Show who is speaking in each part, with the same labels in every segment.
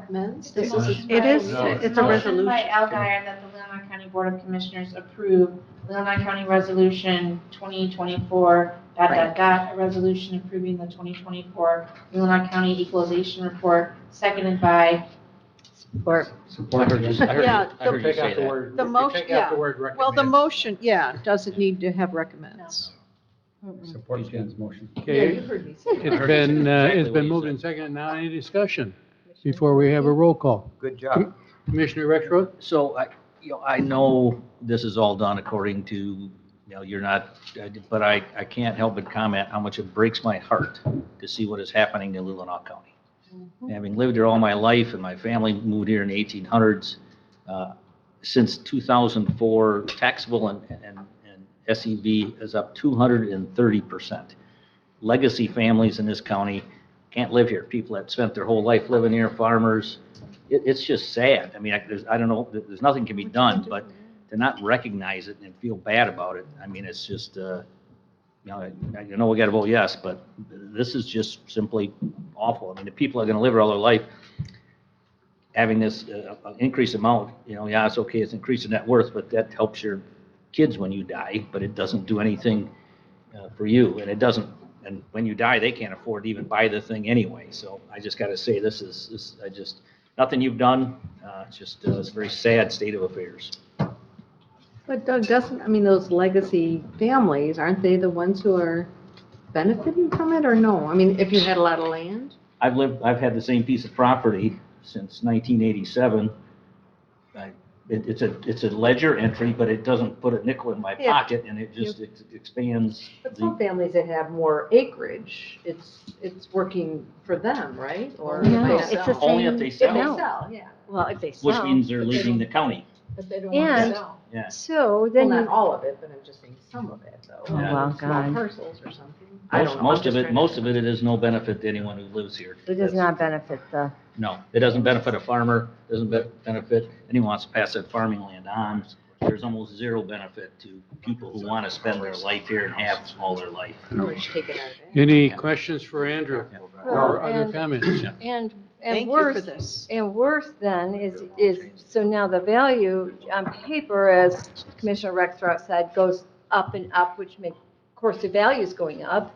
Speaker 1: recommends?
Speaker 2: This
Speaker 1: This
Speaker 2: is-
Speaker 1: is-
Speaker 2: It is,
Speaker 3: No, it's
Speaker 2: it's a
Speaker 3: not.
Speaker 2: resolution.
Speaker 4: Motion by Alguier that the Leona County Board of Commissioners approve Leona County Resolution 2024, dot, dot, dot, a resolution approving the 2024 Leona County Equalization Report, seconded by,
Speaker 2: Support.
Speaker 3: Support.
Speaker 5: I heard you- I heard you-
Speaker 2: Yeah,
Speaker 5: I heard you
Speaker 3: Take out
Speaker 5: say
Speaker 3: the
Speaker 5: that.
Speaker 3: word,
Speaker 2: The
Speaker 3: you
Speaker 2: most-
Speaker 3: take
Speaker 2: yeah.
Speaker 3: out the word
Speaker 2: Well, the
Speaker 3: recommend.
Speaker 2: motion, yeah, doesn't need to have recommends.
Speaker 5: Support Jen's motion.
Speaker 1: Yeah,
Speaker 6: Okay,
Speaker 1: you heard me say
Speaker 6: it's
Speaker 1: that.
Speaker 6: been, uh,
Speaker 5: Exactly
Speaker 6: it's
Speaker 5: what
Speaker 6: been
Speaker 5: you
Speaker 6: moved
Speaker 5: said.
Speaker 6: and seconded. Now any discussion before we have a roll call?
Speaker 7: Good job.
Speaker 6: Commissioner Rexroth?
Speaker 5: So I, you know, I know this is all done according to, you know, you're not, but I, I can't help but comment how much it breaks my heart to see what is happening in Lillinaw County. Having lived here all my life and my family moved here in the 1800s, uh, since 2004, taxable and, and and SEV is up 230%. Legacy families in this county can't live here. People that spent their whole life living here, farmers, it, it's just sad. I mean, I, there's, I don't know, there- there's nothing can be done, but to not recognize it and feel bad about it, I mean, it's just, uh, you know, I, I know we gotta vote yes, but this is just simply awful. I mean, the people are gonna live here all their life having this, uh, uh, increased amount, you know, yeah, it's okay, it's increasing net worth, but that helps your kids when you die, but it doesn't do anything, uh, for you, and it doesn't, and when you die, they can't afford to even buy the thing anyway, so I just gotta say, this is, this, I just, nothing you've done. Uh, It's just, uh, it's a very sad state of affairs.
Speaker 1: But Doug, doesn't, I mean, those legacy families, aren't they the ones who are benefiting from it or no? I mean, if you had a lot of land?
Speaker 5: I've lived, I've had the same piece of property since 1987. I- it- It's a, it's a ledger entry, but it doesn't put a nickel in my
Speaker 1: Yeah.
Speaker 5: pocket, and it just ex- expands
Speaker 1: But some
Speaker 5: the,
Speaker 1: families that have more acreage, it's, it's working for them, right? Or if
Speaker 2: No,
Speaker 1: they
Speaker 2: it's the
Speaker 1: sell.
Speaker 5: only if they
Speaker 1: If they
Speaker 5: sell,
Speaker 1: sell, yeah.
Speaker 2: Well, if they
Speaker 5: which means they're leaving the county.
Speaker 1: But they don't want to
Speaker 8: And-
Speaker 1: sell.
Speaker 5: Yeah.
Speaker 8: So
Speaker 1: Well,
Speaker 8: then,
Speaker 1: not
Speaker 8: you-
Speaker 1: all of it, but I'm just saying some of it though.
Speaker 5: Oh, wow,
Speaker 1: Small
Speaker 8: God.
Speaker 1: parcels or something. I don't
Speaker 5: Most
Speaker 1: know.
Speaker 5: most of it, most of it, it is no benefit to anyone who lives here.
Speaker 8: it does
Speaker 5: That's-
Speaker 8: not benefit the,
Speaker 5: No, it doesn't benefit a farmer, doesn't be- benefit anyone who wants to pass that farming land on. There's almost zero benefit to people who want to spend their life here and have all their life.
Speaker 1: Oh,
Speaker 6: Any questions for Andrew or other
Speaker 8: and-
Speaker 6: comments?
Speaker 8: and, and
Speaker 2: Thank you for
Speaker 8: worse,
Speaker 2: this.
Speaker 8: and worse then is, is, so now the value on paper, as Commissioner Rexroth said, goes up and up, which makes, of course, the value's going up.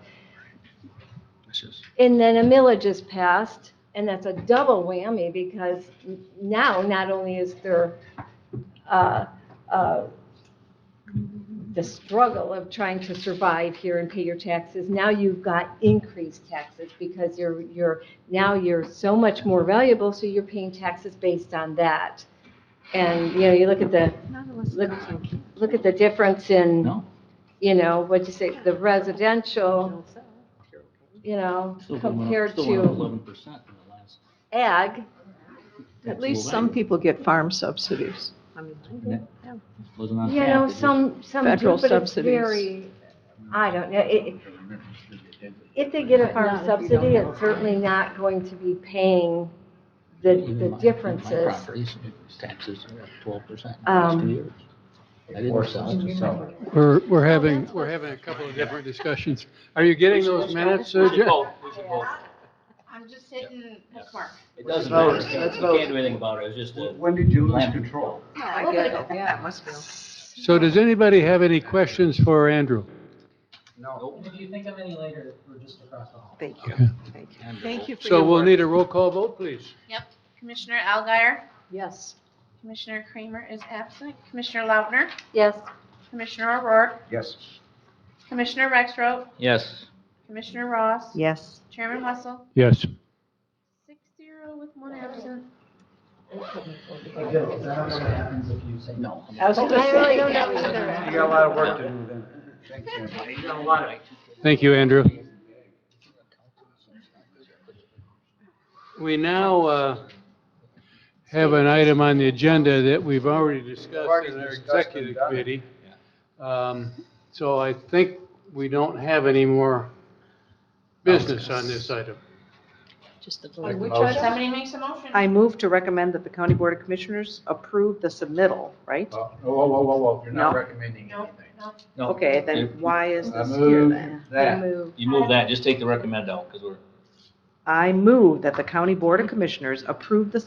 Speaker 5: It's just-
Speaker 8: And then a millage is passed, and that's a double whammy because n- now not only is there uh, uh, the struggle of trying to survive here and pay your taxes, now you've got increased taxes because you're, you're, now you're so much more valuable, so you're paying taxes based on that. And, you know, you look at the, look, look at the difference in,
Speaker 5: No,
Speaker 8: you know, what'd you say, the residential, you know,
Speaker 5: still going up-
Speaker 8: compared
Speaker 5: still went up
Speaker 8: to
Speaker 5: 11% in the last-
Speaker 8: ag.
Speaker 2: At least some people get farm subsidies.
Speaker 5: Wasn't on
Speaker 8: You
Speaker 5: tap, it
Speaker 8: know,
Speaker 5: just-
Speaker 8: some, some
Speaker 2: Federal
Speaker 8: do, but it's
Speaker 2: subsidies.
Speaker 8: very, I don't know, it, if they get a
Speaker 1: Not if
Speaker 8: farm
Speaker 1: you
Speaker 8: subsidy,
Speaker 1: don't
Speaker 8: it's certainly not going to be paying the,
Speaker 5: Even my-
Speaker 8: the
Speaker 5: my
Speaker 8: differences.
Speaker 5: properties, Taxes are up 12% in the last
Speaker 8: Um,
Speaker 5: two years. I didn't sell.
Speaker 6: We're, we're having, we're having a couple of different discussions. Are you getting those minutes, uh, Jen?
Speaker 5: Oh.
Speaker 4: I'm just hitting bookmark.
Speaker 5: It doesn't
Speaker 7: Vote,
Speaker 5: matter, you
Speaker 7: let's
Speaker 5: can't do anything about it, it's just a.
Speaker 7: When did you lose control?
Speaker 1: I get it, yeah, it must be.
Speaker 6: So does anybody have any questions for Andrew?
Speaker 7: No.
Speaker 9: If you think of any later, we're just across the hall.
Speaker 1: Thank you, thank you.
Speaker 2: Thank you for
Speaker 6: So
Speaker 2: your
Speaker 6: we'll
Speaker 2: work.
Speaker 6: need a roll call vote, please.
Speaker 4: Commissioner Alguier,
Speaker 1: Yes.
Speaker 4: Commissioner Kramer is absent, Commissioner Lautner,
Speaker 8: Yes,
Speaker 4: Commissioner O'Rourke,
Speaker 7: Yes.
Speaker 4: Commissioner Rexroth,
Speaker 5: Yes.
Speaker 4: Commissioner Ross,
Speaker 2: Yes.
Speaker 4: Chairman Wessel,
Speaker 6: Yes.
Speaker 4: six zero with one absent.
Speaker 9: I do, I don't know what happens if you say no.
Speaker 1: I was
Speaker 8: I really don't know either.
Speaker 7: You got a lot of work to do then. Thank you.
Speaker 6: Thank you, Andrew. We now uh, have an item on the agenda that we've already discussed
Speaker 7: Already
Speaker 6: in our
Speaker 7: discussed and
Speaker 6: executive
Speaker 7: done.
Speaker 6: committee. Um, So I think we don't have any more business on this item.
Speaker 2: Just the
Speaker 1: On
Speaker 2: vote.
Speaker 1: which
Speaker 7: Motion.
Speaker 1: item?
Speaker 4: Somebody makes a motion.
Speaker 2: I move to recommend that the County Board of Commissioners approve the submittal, right?
Speaker 7: Whoa, whoa, whoa, whoa, whoa, you're not
Speaker 2: No.
Speaker 7: recommending
Speaker 4: No,
Speaker 7: anything.
Speaker 4: no.
Speaker 5: No.
Speaker 2: Okay, then why is
Speaker 7: I
Speaker 2: this here
Speaker 7: move
Speaker 2: then?
Speaker 7: that.
Speaker 5: You move that, just take the recommend out, because we're.
Speaker 2: I move that the County Board of Commissioners approve the